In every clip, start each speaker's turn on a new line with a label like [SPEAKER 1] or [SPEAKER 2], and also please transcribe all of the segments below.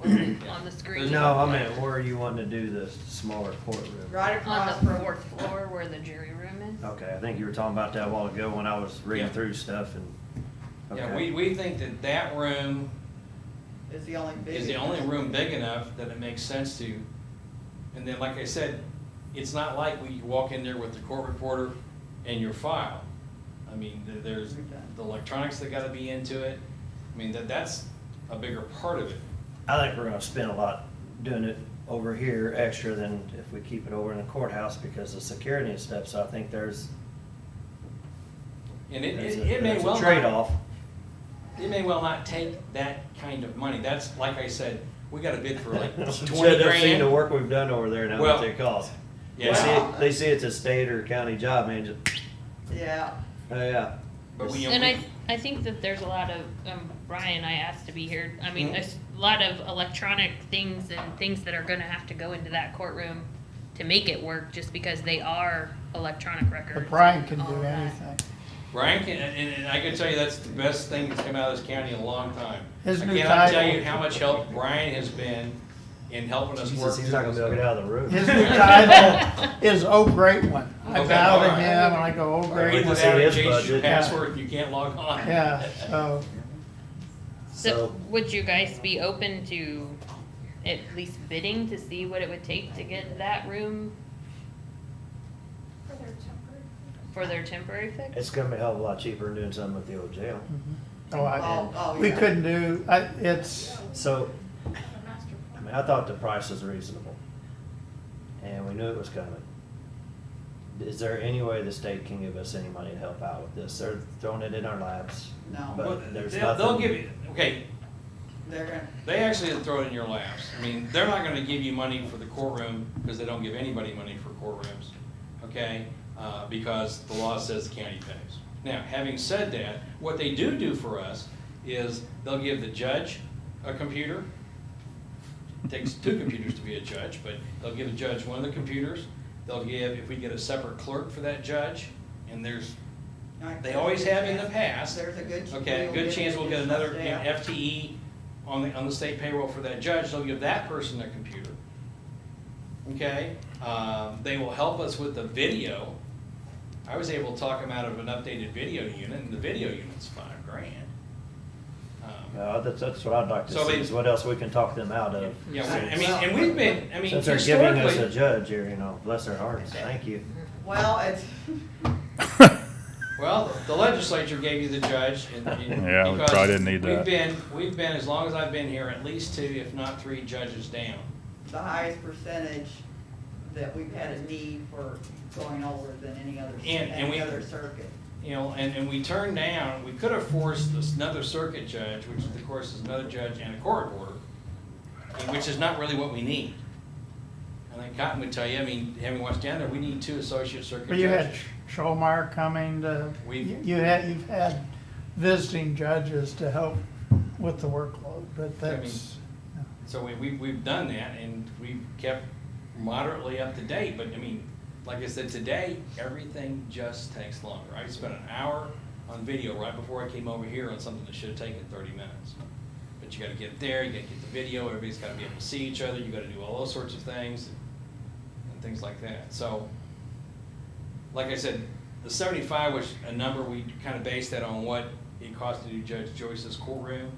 [SPEAKER 1] wasn't on the screen.
[SPEAKER 2] No, I meant where you want to do the smaller courtroom.
[SPEAKER 3] Right across
[SPEAKER 1] On the
[SPEAKER 3] from.
[SPEAKER 1] fourth floor where the jury room is.
[SPEAKER 2] Okay, I think you were talking about that a while ago when I was reading
[SPEAKER 4] Yeah.
[SPEAKER 2] through stuff and.
[SPEAKER 4] Yeah,
[SPEAKER 2] okay.
[SPEAKER 4] we, we think that that room
[SPEAKER 3] Is the only big.
[SPEAKER 4] is the only room big enough that it makes sense to. And then, like I said, it's not like we walk in there with the court reporter and your file. I mean, there- there's the electronics that gotta be into it. I mean, that, that's a bigger part of it.
[SPEAKER 2] I think we're gonna spend a lot doing it over here extra than if we keep it over in the courthouse because of security and stuff, so I think there's.
[SPEAKER 4] And it,
[SPEAKER 2] there's
[SPEAKER 4] it
[SPEAKER 2] a-
[SPEAKER 4] it may
[SPEAKER 2] there's a
[SPEAKER 4] well not.
[SPEAKER 2] Trade-off.
[SPEAKER 4] It may well not take that kind of money. That's, like I said, we got a bid for like twenty
[SPEAKER 2] Should have seen the
[SPEAKER 4] grand.
[SPEAKER 2] work we've done over there and how
[SPEAKER 4] Well,
[SPEAKER 2] much it costs. They
[SPEAKER 4] yeah.
[SPEAKER 2] see it, they see it's a state or county job, man, just,
[SPEAKER 3] Yeah,
[SPEAKER 2] oh yeah.
[SPEAKER 4] But we-
[SPEAKER 1] And I, I think that there's a lot of, um, Ryan, I asked to be here, I mean,
[SPEAKER 2] Hmm?
[SPEAKER 4] Mhm.
[SPEAKER 1] there's a lot of electronic things and things that are gonna have to go into that courtroom to make it work, just because they are electronic records.
[SPEAKER 5] But Brian
[SPEAKER 1] and
[SPEAKER 5] can
[SPEAKER 1] all
[SPEAKER 5] do
[SPEAKER 1] of that.
[SPEAKER 5] anything.
[SPEAKER 4] Brian can, and, and I can tell you that's the best thing that's come out of this county in a long time. I
[SPEAKER 5] His new
[SPEAKER 4] cannot tell
[SPEAKER 5] title.
[SPEAKER 4] you how much help Brian has been in helping us work.
[SPEAKER 2] Jesus, he's not gonna be able to get out of the room.
[SPEAKER 5] His new title is Oh Great One. I
[SPEAKER 4] Okay,
[SPEAKER 5] bow to
[SPEAKER 4] all
[SPEAKER 5] him
[SPEAKER 4] right.
[SPEAKER 5] and I go, Oh Great
[SPEAKER 4] Even
[SPEAKER 5] One.
[SPEAKER 2] see
[SPEAKER 4] without
[SPEAKER 2] his
[SPEAKER 4] a change your
[SPEAKER 2] budget.
[SPEAKER 4] password, you can't log on.
[SPEAKER 5] Yeah, so,
[SPEAKER 1] So, would you guys be open to at least bidding to see what it would take to get that room
[SPEAKER 6] For their temporary.
[SPEAKER 1] for their temporary fix?
[SPEAKER 2] It's gonna be a hell of a lot cheaper than doing something at the old jail.
[SPEAKER 5] oh,
[SPEAKER 3] Oh,
[SPEAKER 5] I,
[SPEAKER 3] oh,
[SPEAKER 5] we
[SPEAKER 3] yeah.
[SPEAKER 5] couldn't do, I, it's,
[SPEAKER 2] So,
[SPEAKER 6] The master
[SPEAKER 2] I
[SPEAKER 6] plan.
[SPEAKER 2] mean, I thought the price was reasonable. And we knew it was coming. Is there any way the state can give us any money to help out with this? They're throwing it in our laps.
[SPEAKER 3] No.
[SPEAKER 4] Well,
[SPEAKER 2] But there's
[SPEAKER 4] they'll-
[SPEAKER 2] nothing.
[SPEAKER 4] They'll give you, okay,
[SPEAKER 3] they're gonna,
[SPEAKER 4] they actually throw it in your laps. I mean, they're not gonna give you money for the courtroom, because they don't give anybody money for courtrooms, okay? Uh, because the law says the county pays. Now, having said that, what they do do for us is they'll give the judge a computer. Takes two computers to be a judge, but they'll give a judge one of the computers. They'll give, if we get a separate clerk for that judge, and there's
[SPEAKER 3] I-
[SPEAKER 4] they always have in the past.
[SPEAKER 3] There's a good.
[SPEAKER 4] Okay, good chance we'll get another you know, FTE on the, on the state payroll for that judge, they'll give that person their computer. Okay, um, they will help us with the video. I was able to talk them out of an updated video unit, and the video unit's five grand. Um,
[SPEAKER 2] Uh, that's, that's what I'd like to
[SPEAKER 4] So
[SPEAKER 2] see,
[SPEAKER 4] they-
[SPEAKER 2] is what else we can talk them out of.
[SPEAKER 4] Yeah, we- I mean, and we've been, I mean,
[SPEAKER 2] uh, Since they're giving us a
[SPEAKER 4] historically-
[SPEAKER 2] judge here, you know, bless their hearts, thank you.
[SPEAKER 3] Well, it's,
[SPEAKER 4] Well, the legislature gave you the judge and. and
[SPEAKER 7] Yeah, we
[SPEAKER 4] because
[SPEAKER 7] probably didn't need
[SPEAKER 4] We've
[SPEAKER 7] that.
[SPEAKER 4] been, we've been, as long as I've been here, at least two, if not three judges down.
[SPEAKER 3] the highest percentage that we've had a need for going over than any other,
[SPEAKER 4] And- and
[SPEAKER 3] any
[SPEAKER 4] we-
[SPEAKER 3] other circuit.
[SPEAKER 4] You know, and, and we turned down, we could have forced this- another circuit judge, which of course is another judge and a court order, and which is not really what we need. And then Cotton would tell you, I mean, having watched down there, we need two associate circuit
[SPEAKER 5] well, you had
[SPEAKER 4] judges.
[SPEAKER 5] Scholmeyer coming to,
[SPEAKER 4] We-
[SPEAKER 5] you you had, you've had visiting judges to help with the workload, but that's,
[SPEAKER 4] So we, we, we've done that and we've kept moderately up to date, but I mean, like I said, today, everything just takes longer. I spent an hour on video right before I came over here on something that should have taken thirty minutes. But you gotta get there, you gotta get the video, everybody's gotta be able to see each other, you gotta do all those sorts of things and things like that. So, like I said, the seventy-five was a number, we kinda based that on what it cost to do Judge Joyce's courtroom,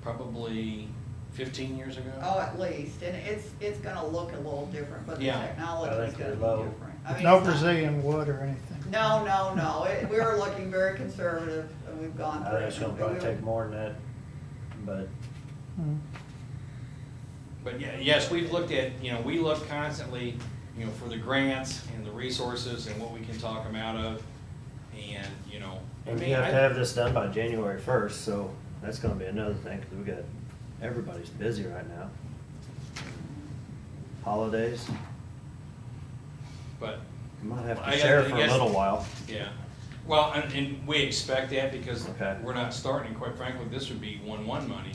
[SPEAKER 4] probably fifteen years ago.
[SPEAKER 3] Oh, at least, and it's, it's gonna look a little different, but the
[SPEAKER 4] Yeah.
[SPEAKER 2] I
[SPEAKER 3] technology's
[SPEAKER 2] think
[SPEAKER 3] gonna
[SPEAKER 2] they're
[SPEAKER 3] be
[SPEAKER 2] low.
[SPEAKER 3] different. I mean,
[SPEAKER 5] no
[SPEAKER 3] it's not-
[SPEAKER 5] Brazilian wood or anything.
[SPEAKER 3] No, no, no, it, we were looking very conservative, and we've gone
[SPEAKER 2] I
[SPEAKER 3] through.
[SPEAKER 2] think it's gonna
[SPEAKER 3] it.
[SPEAKER 2] probably
[SPEAKER 3] We
[SPEAKER 2] take
[SPEAKER 3] were-
[SPEAKER 2] more than that, but
[SPEAKER 5] Mm.
[SPEAKER 4] But yeah, yes, we've looked at, you know, we look constantly, you know, for the grants and the resources and what we can talk them out of. And, you know, I
[SPEAKER 2] And we
[SPEAKER 4] mean,
[SPEAKER 2] have to
[SPEAKER 4] I,
[SPEAKER 2] have this done by January first, so that's gonna be another thing, because we got, everybody's busy right now. Holidays,
[SPEAKER 4] but,
[SPEAKER 2] we might have
[SPEAKER 4] I- I
[SPEAKER 2] to share for a
[SPEAKER 4] guess-
[SPEAKER 2] little while.
[SPEAKER 4] yeah. Well, and, and we expect that because
[SPEAKER 2] Okay.
[SPEAKER 4] we're not starting, quite frankly, this would be one-one money.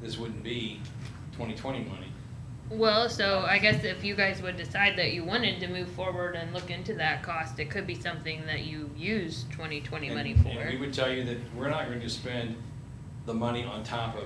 [SPEAKER 4] This wouldn't be twenty-twenty money.
[SPEAKER 1] Well, so I guess if you guys would decide that you wanted to move forward and look into that cost, it could be something that you use twenty twenty money
[SPEAKER 4] And- And we
[SPEAKER 1] for.
[SPEAKER 4] would tell you that we're not going to spend the money on top of